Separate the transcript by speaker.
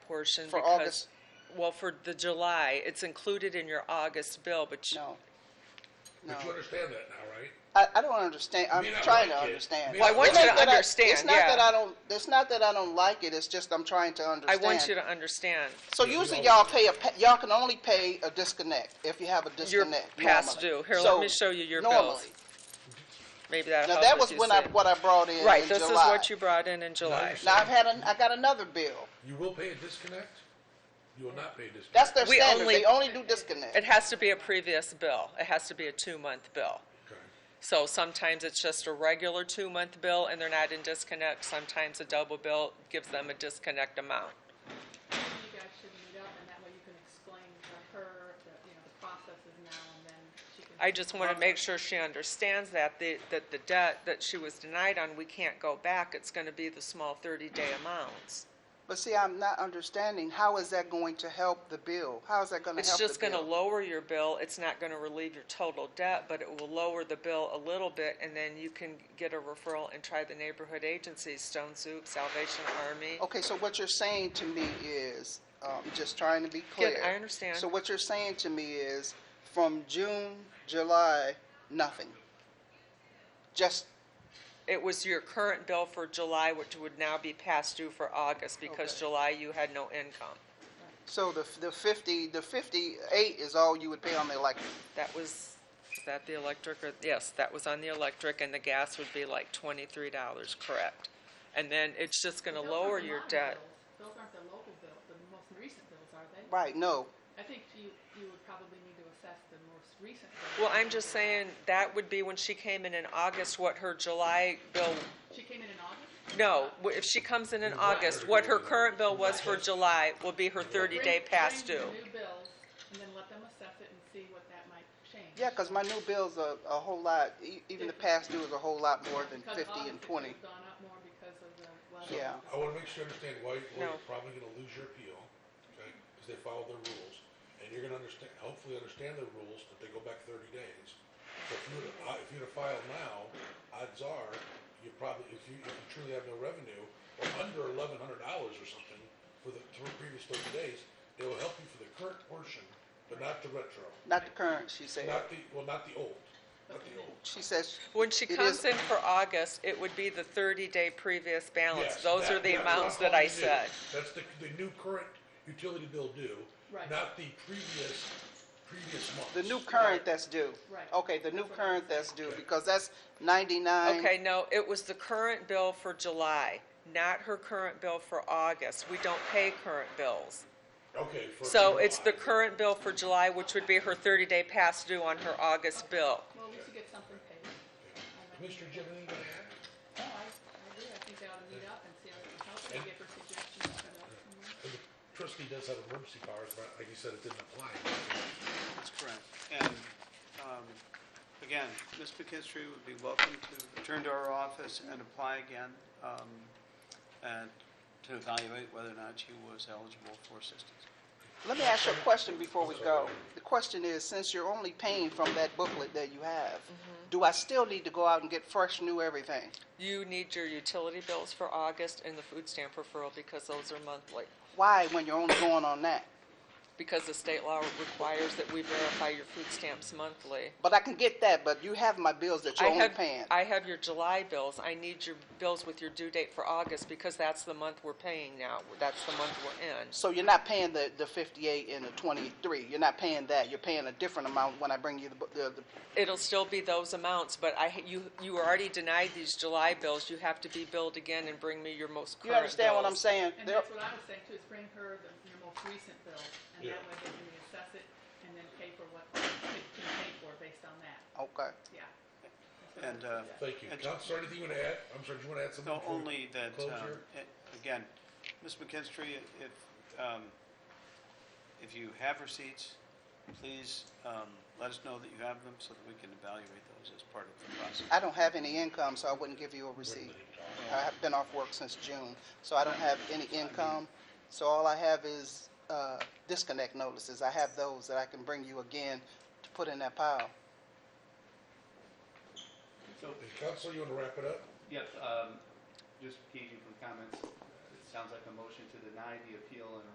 Speaker 1: portion
Speaker 2: For
Speaker 1: because
Speaker 2: August?
Speaker 1: well for the July it's included in your August bill, but you,
Speaker 2: No. No.
Speaker 3: But you understand that now, right?
Speaker 2: I, I don't understand. I'm
Speaker 3: Me not
Speaker 2: trying to
Speaker 3: like it.
Speaker 2: understand.
Speaker 3: Me Well, I not want
Speaker 2: It's
Speaker 3: you
Speaker 2: not
Speaker 1: to
Speaker 2: that I- It's
Speaker 1: understand,
Speaker 2: not
Speaker 1: yeah.
Speaker 2: that I don't, it's not that I don't like it, it's just I'm trying to
Speaker 1: I
Speaker 2: understand.
Speaker 1: want you to understand
Speaker 2: So usually y'all pay a, pa- y'all can only pay a disconnect if you have a
Speaker 1: your
Speaker 2: disconnect
Speaker 1: past
Speaker 2: normally.
Speaker 1: due. Here,
Speaker 2: So,
Speaker 1: let me show you your bills.
Speaker 2: Normally.
Speaker 1: Maybe that
Speaker 2: Now,
Speaker 1: helps.
Speaker 2: that was
Speaker 1: you
Speaker 2: when I,
Speaker 1: see.
Speaker 2: what I brought in in July.
Speaker 1: right. This is what you brought in in July.
Speaker 3: Nice.
Speaker 2: Now, I've had, an- I got another bill.
Speaker 3: You will pay a disconnect, you will not pay a disconnect.
Speaker 2: That's their
Speaker 1: We
Speaker 2: standard.
Speaker 1: only-
Speaker 2: They only do
Speaker 1: It
Speaker 2: disconnect.
Speaker 1: has to be a previous bill. It has to be a two-month bill.
Speaker 3: Okay.
Speaker 1: So sometimes it's just a regular two-month bill and they're not in disconnect. Sometimes a double bill gives them a disconnect amount.
Speaker 4: you guys should meet up, and that way you can explain to her that, you know, the process is now, and then she can.
Speaker 1: I just
Speaker 2: Uh-huh.
Speaker 1: want to make sure she understands that, the- that the debt that she was denied on, we can't go back. It's going to be the small 30-day amounts.
Speaker 2: But see, I'm not understanding, how is that going to help the bill? How is that gonna
Speaker 1: It's
Speaker 2: help the bill?
Speaker 1: just going to lower your bill. It's not going to relieve your total debt, but it will lower the bill a little bit, and then you can get a referral and try the neighborhood agencies, Stone Soup, Salvation Army.
Speaker 2: Okay, so what you're saying to me is, um, just trying to be
Speaker 1: Yeah,
Speaker 2: clear.
Speaker 1: I understand.
Speaker 2: So what you're saying to me is, from June, July, nothing. Just,
Speaker 1: It was your current bill for July, which would now be past due for August, because
Speaker 2: Okay.
Speaker 1: July you had no income.
Speaker 2: so the, the fifty, the fifty-eight is all you would pay on the electric.
Speaker 1: That was, is that the electric, or, yes, that was on the electric, and the gas would be like twenty-three dollars, correct? And then it's just gonna
Speaker 4: Those
Speaker 1: lower
Speaker 4: aren't the
Speaker 1: your
Speaker 4: minor
Speaker 1: debt.
Speaker 4: bills. Those aren't the local bills, the most recent bills, are they?
Speaker 2: Right, no,
Speaker 4: I think you, you would probably need to assess the most recent.
Speaker 1: Well,
Speaker 4: bills.
Speaker 1: I'm just saying, that would be when she came in in August, what her July bill,
Speaker 4: She came in in August?
Speaker 1: no, wh- if she comes in in
Speaker 3: You want her
Speaker 1: August,
Speaker 3: to
Speaker 1: what
Speaker 3: go
Speaker 1: her
Speaker 3: to-
Speaker 1: current bill was for July will be her
Speaker 4: Bring-
Speaker 1: thirty-day past
Speaker 4: bring
Speaker 1: due.
Speaker 4: the new bills, and then let them assess it and see what that might change.
Speaker 2: yeah, cause my new bill's a, a whole lot, e- even the past due is a whole lot more than
Speaker 4: Because
Speaker 2: fifty and
Speaker 4: August, it
Speaker 2: twenty.
Speaker 4: could've gone up more because of the
Speaker 3: So,
Speaker 4: level.
Speaker 2: Yeah.
Speaker 3: I wanna make sure you understand why, why
Speaker 1: No.
Speaker 3: you're probably gonna lose your appeal, okay, because they followed their rules. And you're gonna understand, hopefully understand the rules, that they go back thirty days. So if you were to, I- if you were to file now, odds are, you probably, if you, if you truly have no revenue, or under eleven hundred dollars or something for the, for the previous thirty days, they will help you for the current portion, but not the retro.
Speaker 2: Not the current, she said.
Speaker 3: Not the, well, not the old, not the old.
Speaker 2: She says,
Speaker 1: When she
Speaker 2: It
Speaker 1: comes
Speaker 2: is-
Speaker 1: in for August, it would be the thirty-day previous balance.
Speaker 3: Yes,
Speaker 1: Those are
Speaker 3: that-
Speaker 1: the
Speaker 3: that's what I'm
Speaker 1: amounts that I
Speaker 3: calling new.
Speaker 1: said.
Speaker 3: That's the, the new current utility bill due,
Speaker 4: Right.
Speaker 3: not the previous, previous month.
Speaker 2: the new current that's due.
Speaker 4: Right.
Speaker 2: Okay, the new current that's due, because that's ninety-nine.
Speaker 1: Okay, no, it was the current bill for July, not her current bill for August. We don't pay current bills.
Speaker 3: Okay. for
Speaker 1: So it's the
Speaker 3: July.
Speaker 1: current bill for July, which would be her thirty-day past due on her August bill.
Speaker 4: Well, we should get something paid.
Speaker 3: Commissioner Jim, anything to add?
Speaker 4: No, I, I agree. I think they ought to meet up and see how they can help and give her suggestions and, uh,
Speaker 3: And the Trustee does have emergency powers, but like you said, it didn't apply.
Speaker 5: That's correct. And um, again, Ms. McKinstry would be welcome to return to our office and apply again um, and to evaluate whether or not she was eligible for assistance.
Speaker 2: Let me ask you a question before we go. The question is, since you're only paying from that booklet that you have,
Speaker 1: Mm-hmm.
Speaker 2: do I still need to go out and get fresh, new everything?
Speaker 1: You need your utility bills for August and the food stamp referral because those are monthly.
Speaker 2: Why, when you're only going on that?
Speaker 1: Because the state law requires that we verify your food stamps monthly.
Speaker 2: But I can get that, but you have my bills that
Speaker 1: I
Speaker 2: you're only
Speaker 1: have,
Speaker 2: paying.
Speaker 1: I have your July bills. I need your bills with your due date for August because that's the month we're paying now. That's the month we're in.
Speaker 2: So you're not paying the, the fifty-eight and the twenty-three. You're not paying that. You're paying a different amount when I bring you the, bu- the, the
Speaker 1: It'll still be those amounts, but I, you, you were already denied these July bills. You have to be billed again and bring me your most current
Speaker 2: you understand what I'm
Speaker 1: bills.
Speaker 2: saying?
Speaker 4: and
Speaker 2: There-
Speaker 4: that's what I was saying too, is bring her the, your most recent bill, and that
Speaker 3: Yeah.
Speaker 4: way they can reassess it and then pay for what it can pay for based on that,
Speaker 2: Okay.
Speaker 4: yeah.
Speaker 5: And uh,
Speaker 3: Thank you.
Speaker 5: And-
Speaker 3: Counselor, anything you want to add? I'm sorry, do you want to add something?
Speaker 5: No,
Speaker 3: before we
Speaker 5: only that,
Speaker 3: Close
Speaker 5: um,
Speaker 3: here?
Speaker 5: a- again, Ms. McKinstry, if, um, if you have receipts, please um, let us know that you have them so that we can evaluate those as part of the process.
Speaker 2: I don't have any income, so I wouldn't give you a receipt. I have been off work since June, so I don't have any income. So all I have is uh, disconnect notices. I have those that I can bring you again to put in that pile.
Speaker 3: And Counselor, you want to wrap it up?
Speaker 6: Yes, um, just gauging from comments, it sounds like a motion to deny the appeal and